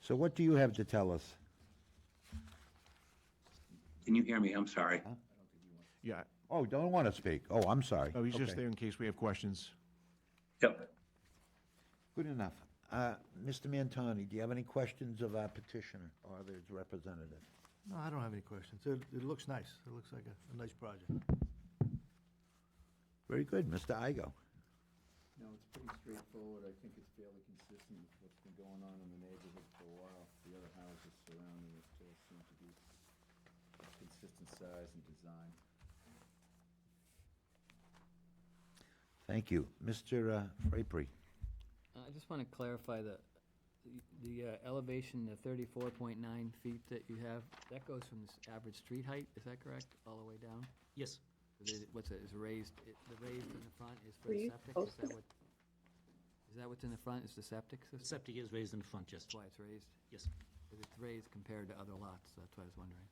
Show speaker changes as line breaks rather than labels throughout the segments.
So what do you have to tell us?
Can you hear me? I'm sorry.
Yeah,
Oh, don't want to speak. Oh, I'm sorry.
no, he's just
Okay.
there in case we have questions.
Yep.
Good enough. Uh, Mr. Mantoni, do you have any questions of our petitioner or his representative?
No, I don't have any questions. It, it looks nice. It looks like a, a nice project.
Very good, Mr. Igo.
No, it's pretty straightforward. I think it's fairly consistent with what's been going on in the neighborhood for a while. The other houses surrounding it all seem to be consistent size and design.
Thank you. Mr. uh, Frapery,
Uh, I just want to clarify the, the uh, elevation, the thirty-four point nine feet that you have, that goes from this average street height, is that correct, all the way down?
Yes.
Is it- What's it, is raised, it- the raised in the front is for the
you
septic, is that what? Is that what's in the front, is the septic
The
system?
Septic is raised in front, yes.
That's why it's raised,
Yes.
'Cause it's raised compared to other lots, that's what I was wondering.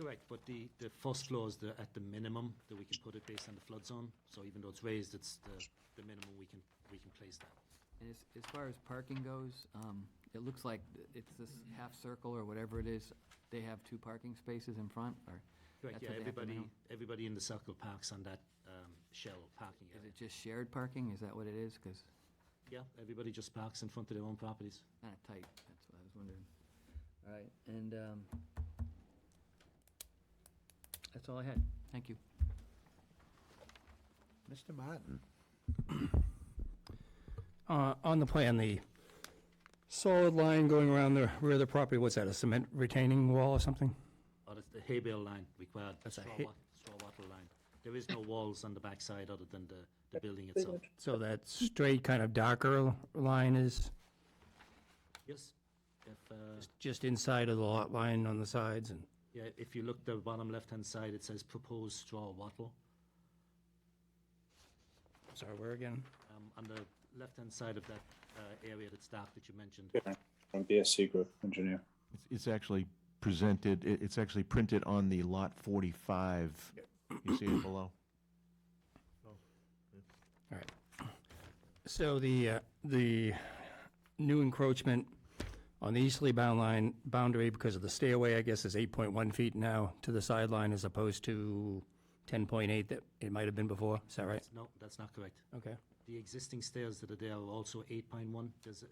Correct, but the, the first floor is the, at the minimum that we can put it based on the flood zone. So even though it's raised, it's the, the minimum we can, we can place that.
And as, as far as parking goes, um, it looks like th- it's this half circle or whatever it is, they have two parking spaces in front, or?
Correct,
that's
yeah,
what they have to
everybody,
minimum?
everybody in the circle parks on that um, shell parking
Is
area.
it just shared parking, is that what it is? Because
Yeah, everybody just parks in front of their own properties.
kind of tight, that's what I was wondering. All right, and um, that's all I had, thank you.
Mr. Martin.
Uh, On the plan, the solid line going around the rear of the property, what's that, a cement retaining wall or something?
Or it's the hay bale line required,
That's a
straw
hay-
wa- straw wattle line. There is no walls on the backside other than the, the building itself.
So that straight kind of darker line is
Yes, if, uh,
just inside of the lot line on the sides and,
yeah, if you look the bottom left-hand side, it says proposed straw wattle.
sorry, where again?
um, on the left-hand side of that uh, area that's dark that you mentioned.
from BSC Group Engineer.
It's- It's actually presented, it- it's actually printed on the lot 45. You see it below?
All right. So the, uh, the new encroachment on the easterly bound line, boundary because of the stairway, I guess, is 8.1 feet now to the sideline as opposed to 10.8 that it might have been before, is that right?
No, that's not correct.
Okay.
The existing stairs that are there are also eight point one. There's, uh,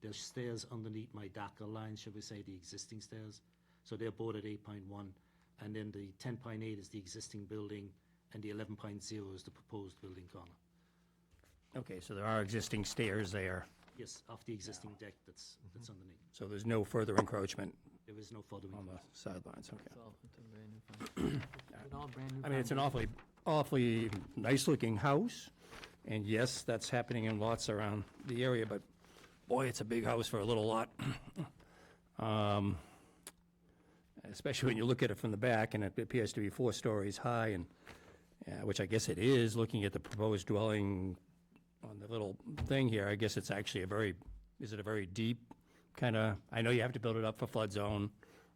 there's stairs underneath my darker line, should we say, the existing stairs. So they're both at eight point one. And then the ten point eight is the existing building and the eleven point zero is the proposed building corner.
Okay, so there are existing stairs there,
Yes, off the existing deck that's, that's underneath.
so there's no further encroachment
There is no further
Mm-hmm. on
increase.
the sidelines, okay.
It's all, it's a brand new foundation. It's an all brand new
I mean, it's an
foundation.
awfully, awfully nice-looking house, and yes, that's happening in lots around the area, but boy, it's a big house for a little lot. Um, Especially when you look at it from the back, and it appears to be four stories high, and, yeah, which I guess it is, looking at the proposed dwelling on the little thing here, I guess it's actually a very, is it a very deep kind of, I know you have to build it up for flood zone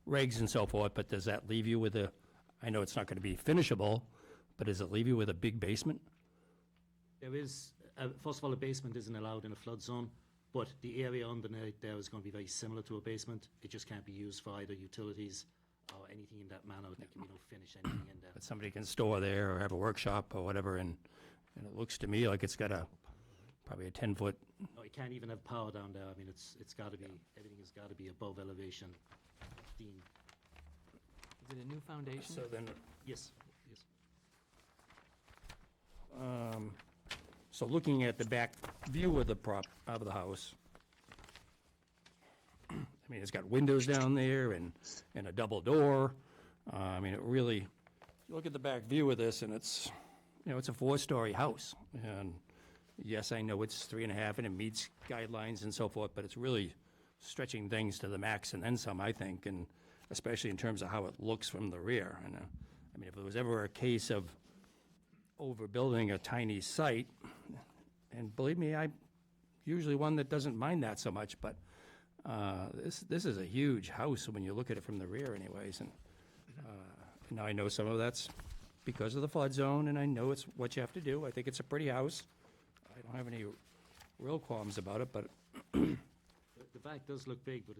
regs and so forth, but does that leave you with a, I know it's not going to be finishable, but does it leave you with a big basement?
There is, uh, first of all, a basement isn't allowed in a flood zone, but the area underneath there is going to be very similar to a basement. It just can't be used for either utilities or anything in that manner. There can be no finish anything in there.
That somebody can store there or have a workshop or whatever, and, and it looks to me like it's got a, probably a 10-foot,
No, it can't even have power down there. I mean, it's, it's got to be, everything has got to be above elevation. Dean,
Is it a new foundation?
so then,
yes, yes.
um, so looking at the back view of the prop, of the house, I mean, it's got windows down there and, and a double door. Uh, I mean, it really, you look at the back view of this and it's, you know, it's a four-story house. And yes, I know it's three and a half and it meets guidelines and so forth, but it's really stretching things to the max and then some, I think, and especially in terms of how it looks from the rear. And, uh, I mean, if there was ever a case of overbuilding a tiny site, and believe me, I'm usually one that doesn't mind that so much, but uh, this, this is a huge house when you look at it from the rear anyways, and uh, now I know some of that's because of the flood zone, and I know it's what you have to do. I think it's a pretty house. I don't have any real qualms about it, but
The- The back does look big, but